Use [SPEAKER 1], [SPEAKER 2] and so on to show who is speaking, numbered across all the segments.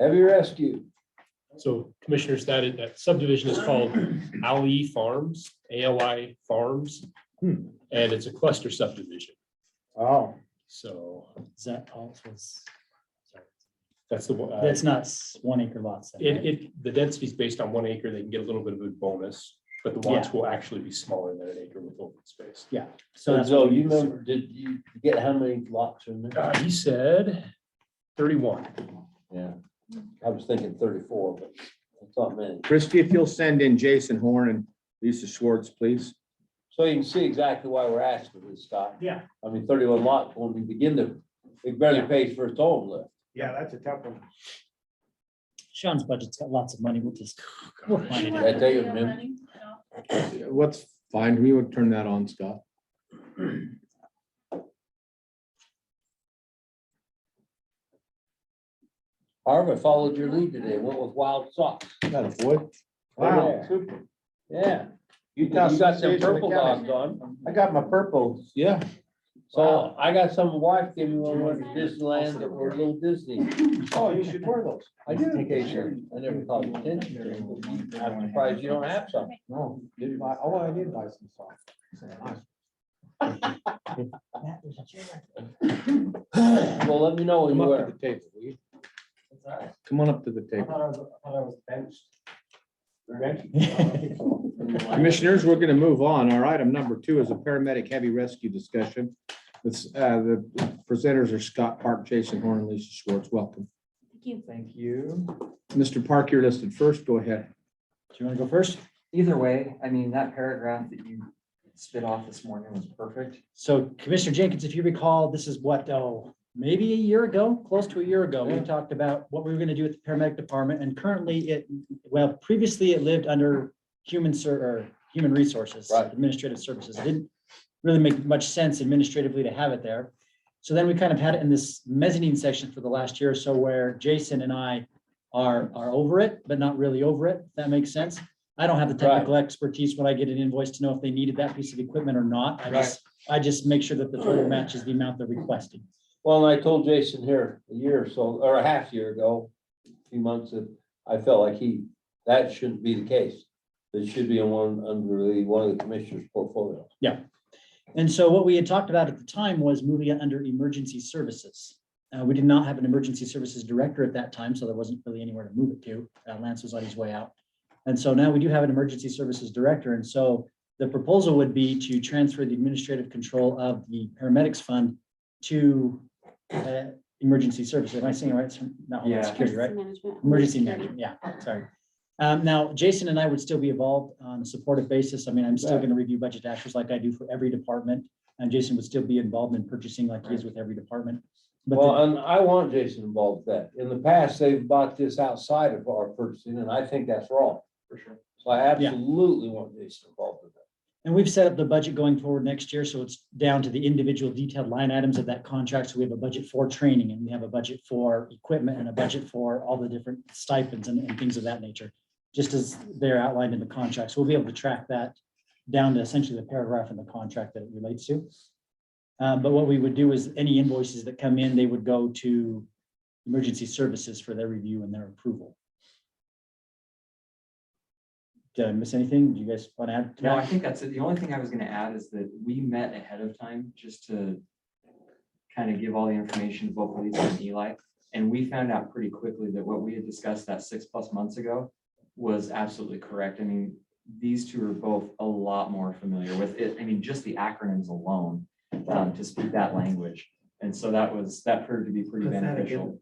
[SPEAKER 1] Heavy rescue.
[SPEAKER 2] So commissioners, that is, that subdivision is called Ali Farms, A L I Farms.
[SPEAKER 1] Hmm.
[SPEAKER 2] And it's a cluster subdivision.
[SPEAKER 1] Oh,
[SPEAKER 2] So
[SPEAKER 3] Is that all it was? sorry.
[SPEAKER 2] that's the one. uh,
[SPEAKER 3] That's not s- one acre lots. then,
[SPEAKER 2] It,
[SPEAKER 3] right?
[SPEAKER 2] it, the density is based on one acre. They can get a little bit of a bonus, but the lots
[SPEAKER 3] Yeah.
[SPEAKER 2] will actually be smaller than an acre with open space.
[SPEAKER 3] Yeah.
[SPEAKER 1] so
[SPEAKER 3] that's
[SPEAKER 1] Joe,
[SPEAKER 3] what we
[SPEAKER 1] you
[SPEAKER 3] use.
[SPEAKER 1] remember, did you get how many lots in there?
[SPEAKER 2] Uh, he said thirty-one.
[SPEAKER 3] Oh,
[SPEAKER 1] Yeah, I was thinking thirty-four, but that's not many.
[SPEAKER 4] Christie, if you'll send in Jason Horn and Lisa Schwartz, please.
[SPEAKER 1] So you can see exactly why we're asking this, Scott.
[SPEAKER 5] Yeah.
[SPEAKER 1] I mean, thirty-one lots when we begin to, it barely pays for its own lift.
[SPEAKER 5] Yeah, that's a tough one.
[SPEAKER 3] Sean's budget's got lots of money. We'll just. we'll find it
[SPEAKER 1] Did I
[SPEAKER 3] out.
[SPEAKER 1] tell you, man?
[SPEAKER 4] What's fine, we would turn that on, Scott.
[SPEAKER 1] Harv, I followed your lead today, went with wild socks.
[SPEAKER 4] Got a boy.
[SPEAKER 1] Wow,
[SPEAKER 5] super.
[SPEAKER 1] Yeah. You
[SPEAKER 5] Utah
[SPEAKER 1] got some
[SPEAKER 5] Association of
[SPEAKER 1] purple
[SPEAKER 5] Counties.
[SPEAKER 1] dogs on.
[SPEAKER 5] I got my purple.
[SPEAKER 4] Yeah.
[SPEAKER 1] So I got some wife gave me one, went to Disneyland,
[SPEAKER 3] Also-
[SPEAKER 1] that were little Disney.
[SPEAKER 5] Oh, you should wear those.
[SPEAKER 1] I did a t-shirt. I never thought of attention. I'm surprised you don't have some.
[SPEAKER 5] No, didn't buy, oh, I did buy some socks.
[SPEAKER 1] Well, let me know when
[SPEAKER 4] Come
[SPEAKER 1] you
[SPEAKER 4] up to
[SPEAKER 1] wear.
[SPEAKER 4] the table, will you?
[SPEAKER 5] I
[SPEAKER 4] Come on up to the table.
[SPEAKER 5] thought I was, I thought I was benched. Benched?
[SPEAKER 4] Commissioners, we're gonna move on. Our item number two is a paramedic heavy rescue discussion. This, uh, the presenters are Scott Park, Jason Horn, and Lisa Schwartz. Welcome.
[SPEAKER 6] Thank you.
[SPEAKER 4] Mr. Park, you're listed first. Go ahead.
[SPEAKER 3] Do you want to go first?
[SPEAKER 6] Either way, I mean, that paragraph that you spit off this morning was perfect.
[SPEAKER 3] So Commissioner Jenkins, if you recall, this is what, oh, maybe a year ago, close to a year ago, we talked about what we were gonna do with the paramedic department and currently it, well, previously it lived under human ser, or human resources,
[SPEAKER 1] Right.
[SPEAKER 3] administrative services. It Didn't really make much sense administratively to have it there. So then we kind of had it in this mezzanine section for the last year or so where Jason and I are, are over it, but not really over it. if That makes sense. I don't have the
[SPEAKER 1] Right.
[SPEAKER 3] technical expertise when I get an invoice to know if they needed that piece of equipment or not. I
[SPEAKER 1] Right.
[SPEAKER 3] just I just make sure that the total matches the amount they're requesting.
[SPEAKER 1] Well, and I told Jason here a year or so, or a half year ago, a few months, that I felt like he, that shouldn't be the case. It should be in one, under the, one of the commissioner's portfolio.
[SPEAKER 3] And so what we had talked about at the time was moving it under emergency services. Uh, we did not have an emergency services director at that time, so there wasn't really anywhere to move it to. Uh, Lance was on his way out. And so now we do have an emergency services director, and so the proposal would be to transfer the administrative control of the paramedics fund to uh, emergency services. Am I saying it right? It's Not Homeland
[SPEAKER 6] Yeah.
[SPEAKER 3] security, right?
[SPEAKER 7] management.
[SPEAKER 3] Emergency management, yeah, sorry. Um, now, Jason and I would still be involved on a supportive basis. I mean, I'm still
[SPEAKER 1] Right.
[SPEAKER 3] gonna review budget actions like I do for every department. And Jason would still be involved in purchasing like he is with every department. But
[SPEAKER 1] Well,
[SPEAKER 3] the-
[SPEAKER 1] and I want Jason involved with that. In the past, they've bought this outside of our purchasing, and I think that's wrong.
[SPEAKER 5] For sure.
[SPEAKER 1] So I absolutely want Jason involved with that.
[SPEAKER 3] and we've set up the budget going forward next year, so it's down to the individual detailed line items of that contract. So we have a budget for training and we have a budget for equipment and a budget for all the different stipends and, and things of that nature. Just as they're outlined in the contract. So we'll be able to track that down to essentially the paragraph in the contract that it relates to. Uh, but what we would do is any invoices that come in, they would go to emergency services for their review and their approval. Did I miss anything? Do you guys want to add? to
[SPEAKER 6] No,
[SPEAKER 3] that?
[SPEAKER 6] I think that's it. The only thing I was gonna add is that we met ahead of time just to kind of give all the information to both Lisa and Eli. And we found out pretty quickly that what we had discussed that six plus months ago was absolutely correct. I mean, these two are both a lot more familiar with it. I mean, just the acronyms alone um, to speak that language. And so that was, that proved to be pretty
[SPEAKER 8] That's not a
[SPEAKER 6] beneficial.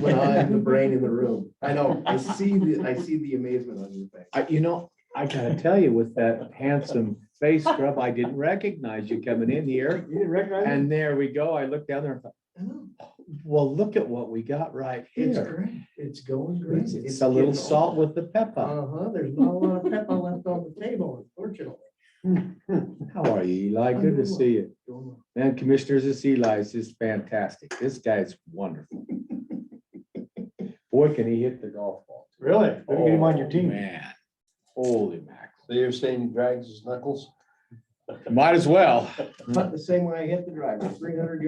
[SPEAKER 8] when I'm the brain in the room. I know, I see the, I see the amazement on your face.
[SPEAKER 4] I, you know, I gotta tell you, with that handsome face scrub, I didn't recognize you coming in here.
[SPEAKER 5] You didn't recognize
[SPEAKER 4] And there we go. I looked down there and thought, "Oh, well, look at what we got right
[SPEAKER 8] It's
[SPEAKER 4] here.
[SPEAKER 8] great. It's going great.
[SPEAKER 4] It's it's a little
[SPEAKER 8] getting
[SPEAKER 4] salt with the pepper.
[SPEAKER 8] old. Uh-huh, there's not a lot of pepper left on the table, unfortunately.
[SPEAKER 4] How are you, Eli? Good to see you.
[SPEAKER 8] Going well.
[SPEAKER 4] Man, commissioners, this Eli is just fantastic. This guy's wonderful. Boy, can he hit the golf ball.
[SPEAKER 5] Really? Better get him on your
[SPEAKER 4] Oh,
[SPEAKER 5] team.
[SPEAKER 4] Man, holy mackerel.
[SPEAKER 1] So you're saying he drags his knuckles?
[SPEAKER 4] Might as well.
[SPEAKER 8] But the same way I hit the driver, three hundred